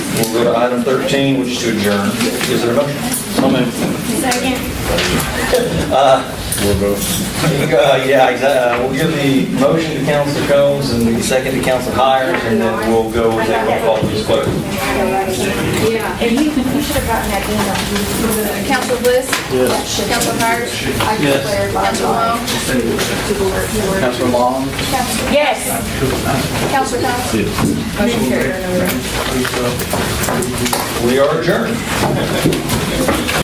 We'll go to item 13, which is to adjourn. Is there a motion? Second. Uh, Yeah, exa- uh, we'll give the motion to Council Combs and the second to Council Hires, and then we'll go with that roll call, please, clerk. Yeah. And you, you should have gotten that email. Council Bliss? Yes. Council Hart? Yes. Council Long? Councilor Long? Yes. Council Combs? Motion carried. We are adjourned.